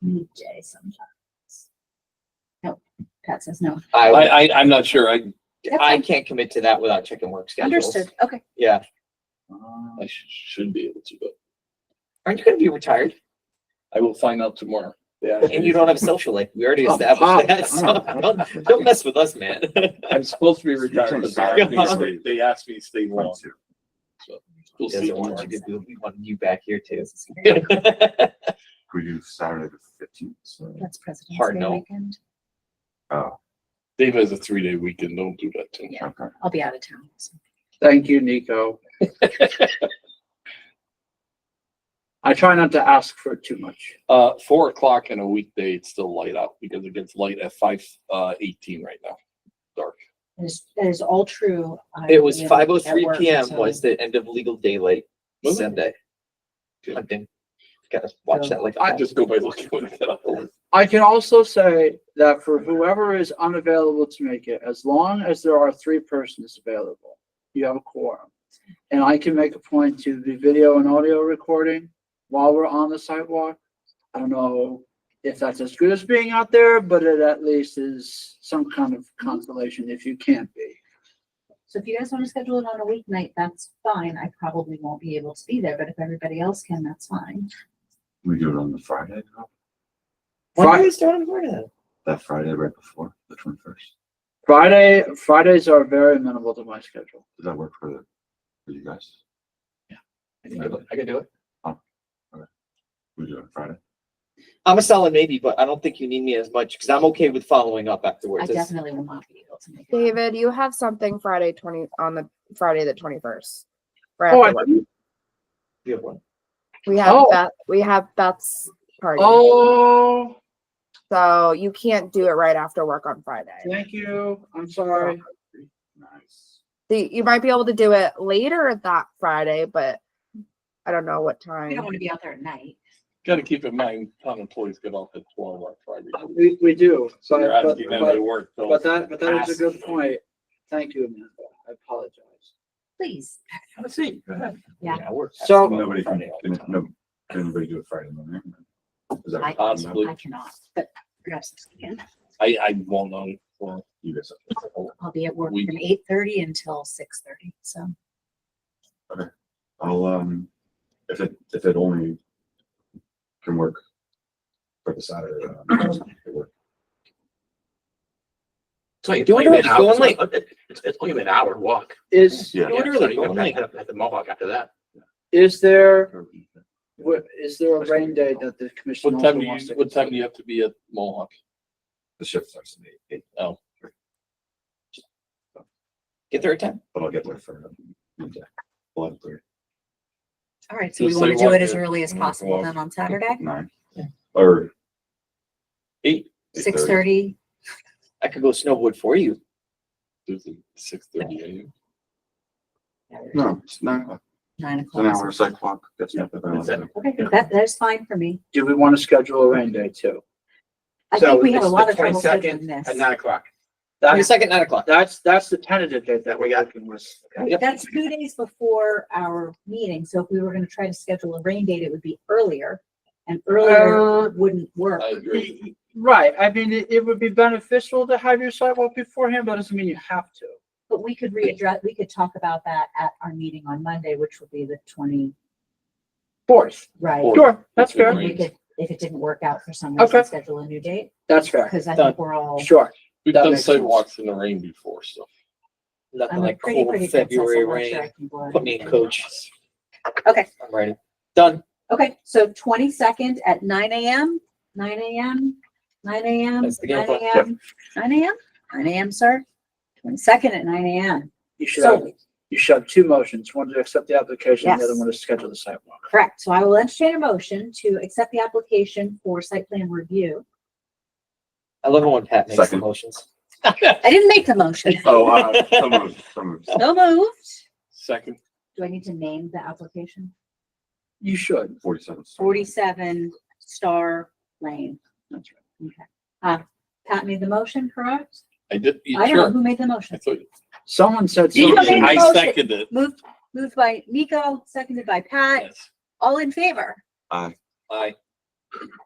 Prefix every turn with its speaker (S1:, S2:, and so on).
S1: need Jay sometimes. Nope, Pat says no.
S2: I,
S3: I, I, I'm not sure. I,
S1: That's
S2: I
S1: fine.
S2: can't commit to that without checking work schedules.
S1: Understood, okay.
S2: Yeah.
S3: I sh- should be able to, but
S2: Aren't you gonna be retired?
S3: I will find out tomorrow. Yeah.
S2: And you don't have a social life. We already
S4: Oh, fuck.
S2: established that. So don't, don't mess with us, man.
S3: I'm supposed to be retired, but they, they asked me to stay long. So we'll see
S2: Doesn't want
S3: tomorrow.
S2: you to do, we want you back here too.
S1: This is great.
S4: We do Saturday the fifteenth, so,
S1: That's President's
S2: Hard
S1: Day
S2: no.
S1: weekend.
S4: oh,
S3: Dave has a three day weekend. Don't do that to me.
S1: Yeah.
S4: okay.
S1: I'll be out of town. so.
S5: Thank you, Nico. I try not to ask for too much.
S3: Uh, four o'clock on a weekday, it's still light out because it gets light at five, uh, eighteen right now.
S1: That is- That is all true. I
S2: It was
S1: am
S2: five oh
S1: at
S2: three
S1: work,
S2: PM
S1: so-
S2: was the end of legal daylight
S3: Was it?
S2: Sunday.
S3: Good.
S2: Hunting. Gotta watch that like.
S3: I just go by looking at it.
S5: I can also say that for whoever is unavailable to make it, as long as there are three persons available, you have a quorum. And I can make a point to the video and audio recording while we're on the sidewalk. I don't know if that's as good as being out there, but it at least is some kind of consolation if you can't be.
S1: So if you guys want to schedule it on a weeknight, that's fine. I probably won't be able to be there, but if everybody else can, that's fine.
S4: We do it on the Friday, no?
S2: Why are
S5: Fri-
S2: you starting for that?
S4: that Friday right before, the twenty-first.
S5: Friday, Fridays are very amenable to my schedule.
S4: Does that work for, the for you guys?
S2: I can do it. I can do it.
S4: We do it on Friday?
S2: I'm a solid maybe, but I don't think you need me as much because I'm okay with following up
S1: I
S2: afterwards. It's-
S1: definitely will not be able to make it.
S6: David, you have something Friday twenty, on the Friday the twenty-first.
S5: Oh, I,
S2: you have one.
S6: We have
S5: Oh.
S6: Beth, we have Beth's party,
S5: oh,
S6: so you can't do it right after work on Friday.
S5: thank you. I'm sorry.
S4: Nice.
S6: So You you might be able to do it later that Friday, but I don't know what
S1: We don't
S6: time.
S1: want to be out there at night.
S3: Gotta keep in mind, town employees get off at twelve on Friday.
S5: We, we do.
S3: So you're
S5: But,
S3: asking them to
S5: but,
S3: work. till-
S5: but that, but that is a good
S3: Ask.
S5: point. Thank you, Amanda. I apologize.
S1: Please,
S3: Have a seat. Go ahead.
S1: Yeah.
S2: I work.
S5: So-
S4: Nobody can,
S2: Friday all the
S4: can-
S2: time.
S4: no, can anybody do it Friday morning? Is that
S1: I-
S3: Possibly.
S1: I cannot, but perhaps this weekend.
S3: I, I won't know. Well,
S4: You guys,
S1: I'll be at work
S3: We-
S1: from eight thirty until six thirty, so.
S4: I'll, um, if it, if it only can work for the Saturday. um, it works.
S7: It's only, it's
S2: Do
S7: only
S2: it
S7: an
S2: early,
S7: hour.
S2: go
S7: It's
S2: online.
S7: only- It's, it's only an hour walk.
S5: Is,
S4: Yeah.
S2: Do it
S7: Yeah,
S2: early,
S7: so you
S2: go
S7: can
S2: online.
S7: back it up At the Mohawk after that.
S5: is there, wha- is there a rain day that the commission
S3: What
S5: also
S3: time do
S5: wants
S3: you,
S5: to?
S3: what time do you have to be at Mohawk?
S4: The shift starts at eight, eight,
S2: Get there at ten.
S4: but I'll get there for, okay, eleven thirty.
S1: All right, so
S3: So
S1: we want to do
S3: sidewalk
S1: it as
S3: is-
S1: early as
S4: Mm, well,
S1: possible then on Saturday,
S4: Nine.
S2: Yeah.
S4: Or.
S3: Eight.
S1: six thirty.
S2: I could go snowboard for you.
S3: There's a six thirty AM.
S4: No, it's nine o'clock.
S1: Nine
S4: It's an
S1: o'clock.
S4: hour cyclock. That's not.
S7: Is that-
S1: Okay, that, that is fine for me.
S5: Do we want to schedule a rain day too?
S1: I
S5: So
S1: think we had a
S7: it's
S1: lot
S7: the
S1: of trouble
S7: 22nd
S1: scheduling this.
S7: At nine o'clock.
S2: Twenty
S5: That's,
S2: second, nine o'clock.
S5: that's, that's the tentative date that we're working with.
S2: Yep.
S1: That's two days before our meeting, so if we were gonna try to schedule a rain date, it would be earlier. And earlier
S5: Uh,
S1: wouldn't work.
S3: I agree.
S5: Right, I mean, it, it would be beneficial to have your sidewalk beforehand, but it doesn't mean you have to.
S1: But we could readdress, we could talk about that at our meeting on Monday, which will be the twenty,
S5: Fourth,
S1: right?
S3: Fourth.
S5: sure, that's
S3: Fourth.
S5: fair,
S1: And we could, if it didn't work out for some
S5: Okay.
S1: reason, schedule a new date,
S5: that's fair,
S1: because I
S2: Done.
S1: think we're all,
S5: sure.
S3: We've
S5: That
S3: done
S5: makes sense.
S3: sidewalks in the rain before, so.
S2: Nothing
S1: I'm a
S2: like
S1: pretty,
S2: cold
S1: pretty.
S2: February rain. Put me in coach. I'm ready. Done.
S1: Okay, so twenty-second at nine AM, nine AM, nine AM,
S2: That's the game
S1: nine
S2: plan.
S1: AM, nine AM, nine AM, sir. Twenty-second at nine AM,
S5: You should have,
S1: so,
S5: you should have two motions, one to accept the application, the other
S1: Yes.
S5: one to schedule the sidewalk.
S1: correct, so I will entertain a motion to accept the application for site plan review.
S2: I love it when Pat makes the
S4: Second.
S2: motions.
S1: I didn't make the motion,
S4: Oh, uh, so moved, so moved.
S1: so moved.
S3: Second,
S1: Do I need to name the application?
S5: You should.
S4: Forty-seven.
S1: Forty-seven Star Lane.
S5: That's
S1: Okay. Uh, Pat made the motion, correct?
S3: I did,
S1: I don't know
S3: sure.
S1: who made the
S3: I
S1: motion.
S3: thought, you-
S5: Someone said.
S1: You made
S5: something.
S1: the
S3: I
S1: motion.
S3: seconded it.
S1: Moved, moved by Nico, seconded by Pat,
S3: Yes.
S1: all in favor?
S4: Aye.
S2: Aye.